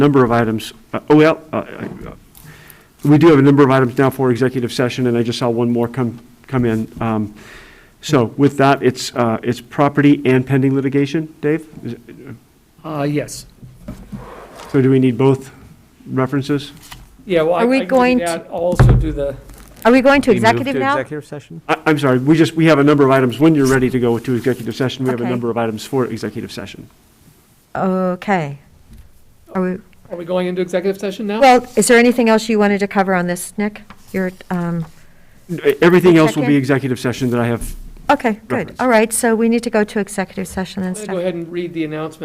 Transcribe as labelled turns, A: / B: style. A: number of items, uh, oh, well, uh, uh, we do have a number of items now for executive session, and I just saw one more come, come in. Um, So with that, it's, uh, it's property and pending litigation, Dave? Is it-
B: Uh, yes.
A: So do we need both references?
B: Yeah, well, I
C: Are we
B: I can
C: going
B: do
C: to-
B: that, I'll also do the,
C: Are we going to
D: We move
C: executive now?
D: executive session?
A: I, I'm sorry, we just, we have a number of items. When you're ready to go to executive session, we have a
C: Okay.
A: number of items for executive session.
C: Okay. Are we,
B: are we going into executive session now?
C: well, is there anything else you wanted to cover on this, Nick? Your, um,
A: Everything else will be
C: Second.
A: executive session that I have
C: okay, good.
A: Reference.
C: All right, so we need to go to executive session and
B: I'm
C: stuff.
B: gonna go ahead and read the announcement